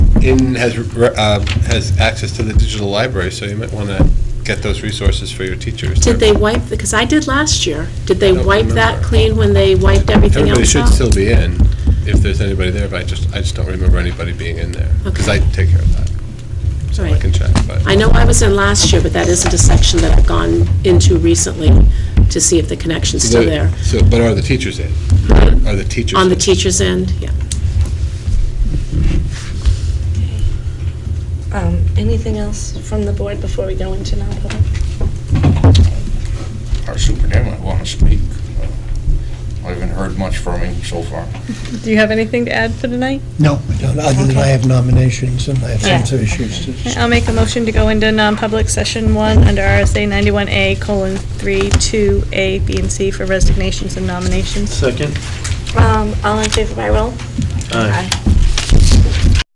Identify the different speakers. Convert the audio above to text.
Speaker 1: Inn has, uh, has access to the digital library, so you might want to get those resources for your teachers.
Speaker 2: Did they wipe, because I did last year, did they
Speaker 1: I don't
Speaker 2: wipe that
Speaker 1: remember.
Speaker 2: clean when they wiped everything
Speaker 1: Everybody
Speaker 2: else
Speaker 1: should
Speaker 2: out?
Speaker 1: still be in, if there's anybody there, but I just, I just don't remember anybody being in there. Because I
Speaker 2: Okay.
Speaker 1: take care of that, so I
Speaker 2: Right.
Speaker 1: can check, but.
Speaker 2: I know I was in last year, but that isn't a section that I've gone into recently to see if the connection's still there.
Speaker 1: So, but are the teachers in? Are the teachers?
Speaker 2: On the
Speaker 1: in?
Speaker 2: teacher's end, yeah.
Speaker 3: Um, Anything else from the board before we go into non-public?
Speaker 4: Our superintendent want to speak. Uh, I haven't heard much from him so far.
Speaker 5: Do you have anything to add for tonight?
Speaker 6: No, I don't, other than I have nominations and I have some other issues to
Speaker 5: I'll make a motion to go into non-public session one under RSA 91A colon 3, 2, A, B, and C for resignations and nominations.
Speaker 7: Second?
Speaker 3: Um, All in favor by roll?
Speaker 7: Aye.
Speaker 3: Aye.